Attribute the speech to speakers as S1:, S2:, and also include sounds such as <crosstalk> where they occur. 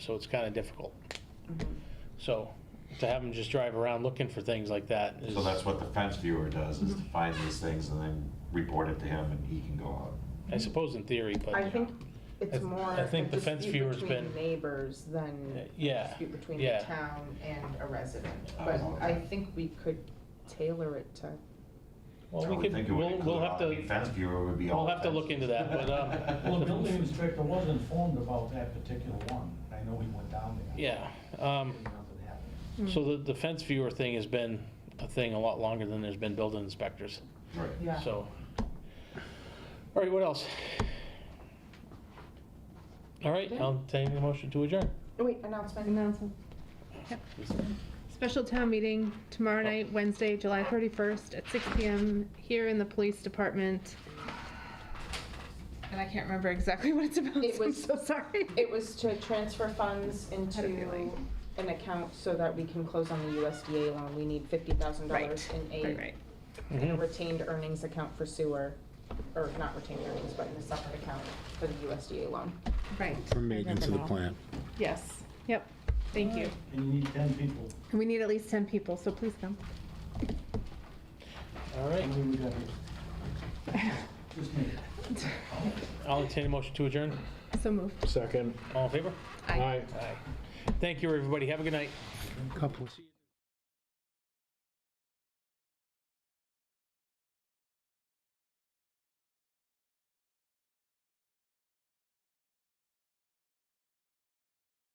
S1: so it's kind of difficult. So to have them just drive around looking for things like that is.
S2: So that's what the fence viewer does, is to find these things and then report it to him and he can go out.
S1: I suppose in theory, but.
S3: I think
S1: I
S3: it's
S1: th-
S3: more.
S1: I think
S3: a
S1: the fence
S3: dispute
S1: viewer's
S3: between
S1: been-
S3: Neighbors
S1: Uh,
S3: than.
S1: yeah,
S3: Dispute between
S1: yeah.
S3: the town and a resident.
S2: Oh,
S3: But
S2: okay.
S3: I think we could tailor it to,
S1: Well,
S2: I
S1: we
S2: would
S1: could,
S2: think it would
S1: we'll, we'll
S2: include
S1: have
S2: all- I mean,
S1: to,
S2: Fence viewer would be all.
S1: we'll have to
S2: fences.
S1: look into that, but, uh,
S4: <laughs> Well, the building
S1: um,
S4: inspector was informed about that particular one. I know he went down there.
S1: yeah. Um,
S4: And Nothing happened.
S1: so the, the fence viewer thing has been a thing a lot longer than there's been building inspectors,
S2: Right.
S3: yeah.
S1: so. All right, what else? All right, I'll take the motion to adjourn.
S3: Oh, Wait, announcement.
S5: Announcement. Special town meeting tomorrow night, Wednesday, July 31st at 6 PM here in the police department. And I can't remember exactly <laughs> what it's about,
S3: It
S5: so I'm
S3: was-
S5: so sorry.
S3: It was to transfer funds into
S5: Had a feeling.
S3: an account so that we can close on the USDA loan. We need fifty thousand dollars
S5: Right,
S3: in a
S5: right, right.
S3: in a
S1: Mm-hmm.
S3: retained earnings account for sewer, or not retained earnings, but in a separate account for the USDA loan.
S5: Right.
S6: From maintenance of the plant.
S5: Yes, yep, thank you.
S4: And you need 10 people.
S5: And we need at least 10 people, so please come.
S1: All
S4: How
S1: right,
S4: many we got here?
S5: <laughs>
S4: Just me.
S1: I'll entertain a motion to adjourn.
S5: So moved.
S6: Second.
S1: All in favor?
S5: Aye.
S1: Aye. Thank you, everybody. Have a good night.
S6: Couple.